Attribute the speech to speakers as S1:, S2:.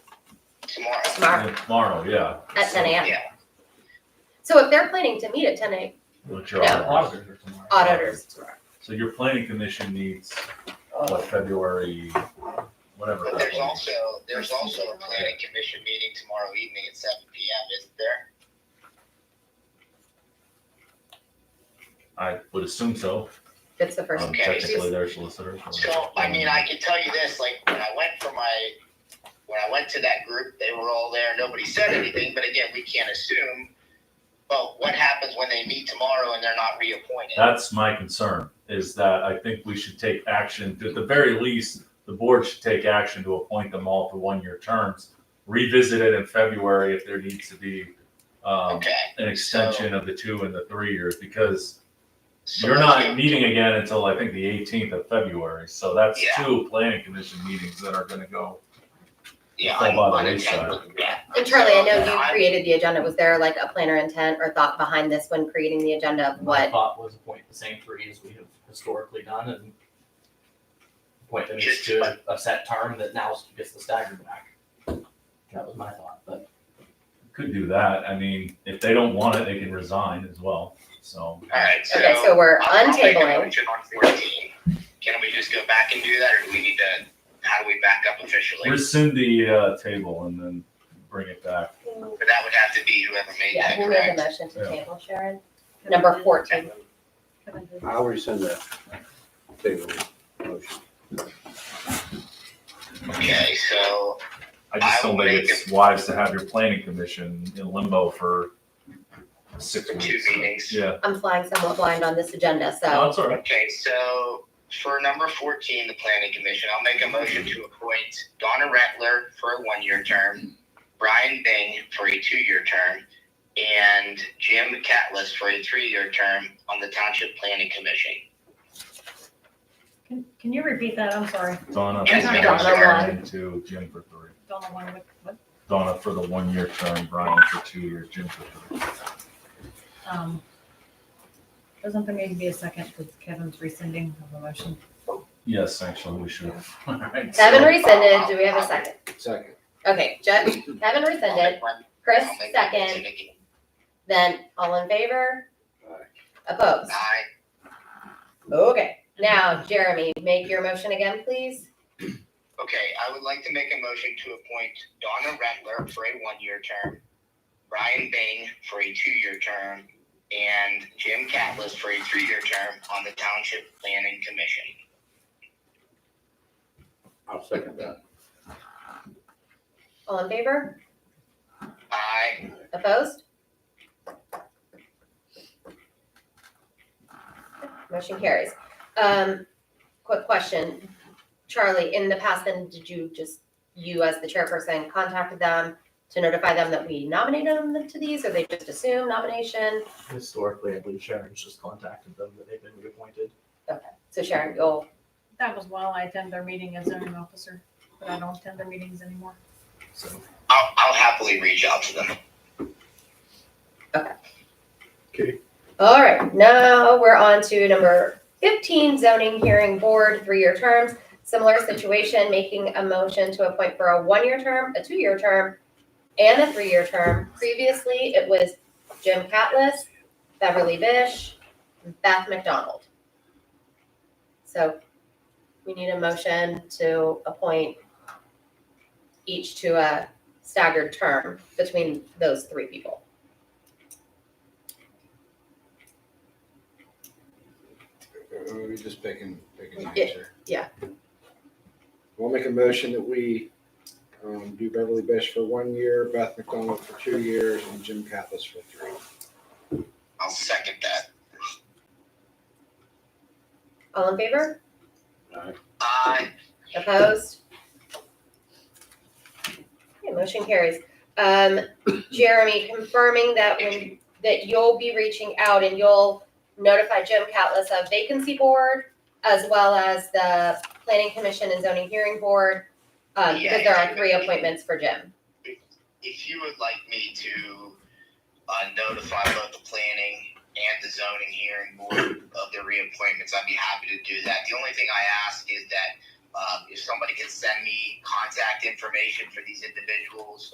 S1: tomorrow.
S2: tomorrow
S3: Tomorrow, yeah.
S2: at ten AM.
S1: Yeah.
S2: So if they're planning to meet at ten AM,
S3: What's your
S2: No.
S3: audit?
S4: Auditor tomorrow.
S2: auditors tomorrow.
S3: So your planning commission meets, what, February, whatever.
S1: But
S3: that
S1: there's
S3: was.
S1: also, there's also a planning commission meeting tomorrow evening at seven P M, isn't there?
S3: I would assume so.
S2: That's the first.
S3: I'm
S1: Okay.
S3: technically their solicitor.
S1: So, I mean, I can tell you this, like, when I went for my, when I went to that group, they were all there, nobody said anything, but again, we can't assume. But what happens when they meet tomorrow and they're not reappointed?
S3: That's my concern, is that I think we should take action, at the very least, the board should take action to appoint them all to one-year terms. Revisit it in February if there needs to be, um,
S1: Okay.
S3: an extension of the two and the three years, because
S1: so
S3: you're
S1: let's
S3: not
S1: do-
S3: meeting again until I think the eighteenth of February, so that's
S1: Yeah.
S3: two planning commission meetings that are gonna go.
S1: Yeah,
S3: Fall
S1: I'm
S3: by the
S1: unattended, yeah.
S2: And Charlie, I
S1: So,
S2: know
S1: no,
S2: you
S1: I-
S2: created the agenda. Was there like a planner intent or thought behind this when creating the agenda of
S4: My
S2: what?
S4: thought was appoint the same three as we have historically done and appoint them each to a- a set term that now gets the stagger back. That was my thought, but
S3: Could do that, I mean, if they don't want it, they can resign as well, so.
S1: All right, so.
S2: Okay, so we're
S1: I'll- I'll make a
S2: untabling.
S1: motion on 14. Can we just go back and do that, or do we need to, how do we back up officially?
S3: Rescind the, uh, table and then bring it back.
S1: But that would have to be whoever made
S2: Yeah,
S1: that,
S2: who made the
S1: correct?
S2: motion to
S3: Yeah.
S2: table, Sharon? Number fourteen.
S5: I'll rescind that. Table motion.
S1: Okay, so,
S3: I just
S1: I
S3: don't
S1: will
S3: think
S1: make
S3: it's wise to have your planning commission in limbo for six
S1: For
S3: weeks.
S1: two meetings.
S3: Yeah,
S2: I'm flying somewhat blind on this agenda,
S3: no,
S2: so
S3: it's all right.
S1: okay, so for number fourteen, the planning commission, I'll make a motion to appoint Donna Rattler for a one-year term, Brian Bing for a two-year term, and Jim Catless for a three-year term on the Township Planning Commission.
S6: Can, can you repeat that? I'm sorry.
S3: Donna.
S1: Yes,
S3: for
S1: Donna
S3: one, and Two, Jim for three.
S6: Don't know what, what,
S3: Donna for the one-year term, Brian for two years, Jim for three.
S6: um, doesn't there need to be a second because Kevin's rescinding of the motion?
S3: Yes, actually, we should have. All
S1: Oh,
S3: right, so-
S2: Kevin rescinded. Do we have a second?
S5: Second.
S2: Okay, Je- Kevin
S1: I'll
S2: rescinded,
S1: make one-
S2: Chris
S1: I'll make one
S2: second,
S1: to Nikki.
S2: then all in favor?
S5: Aye.
S2: Opposed?
S1: Aye.
S2: Okay, now Jeremy, make your motion again, please.
S1: Okay, I would like to make a motion to appoint Donna Rentler for a one-year term, Brian Bing for a two-year term, and Jim Catless for a three-year term on the Township Planning Commission.
S5: I'll second that.
S2: All in favor?
S1: Aye.
S2: Opposed? Motion carries. Um, quick question. Charlie, in the past then, did you just, you as the chairperson contacted them to notify them that we nominated them to these, or they just assume nomination?
S4: historically, I believe Sharon's just contacted them that they've been reappointed.
S2: So Sharon, you'll,
S6: That was while I attend their meeting as zoning officer, but I don't attend their meetings anymore.
S4: So
S1: I'll, I'll happily reach out to them.
S2: all right, now we're on to number fifteen, zoning hearing board, three-year terms. Similar situation, making a motion to appoint for a one-year term, a two-year term, and a three-year term. Previously, it was Jim Catless, Beverly Bish, and Beth McDonald. So we need a motion to appoint each to a staggered term between those three people.
S5: We're just picking, picking names
S2: Yeah,
S5: here.
S2: yeah.
S5: We'll make a motion that we um, do Beverly Bish for one year, Beth McDonald for two years, and Jim Cathis for three.
S1: I'll second that.
S2: All in favor?
S1: Aye.
S2: Opposed? Okay, motion carries. Um, Jeremy, confirming that when, that you'll be reaching out and you'll notify Jim Catless of vacancy board as well as the planning commission and zoning hearing board. Um, because there are three appointments for Jim.
S1: If you would like me to, uh, notify both the planning and the zoning hearing board of their reappointments, I'd be happy to do that. The only thing um, I ask is that, uh, if somebody can send me contact information for these individuals,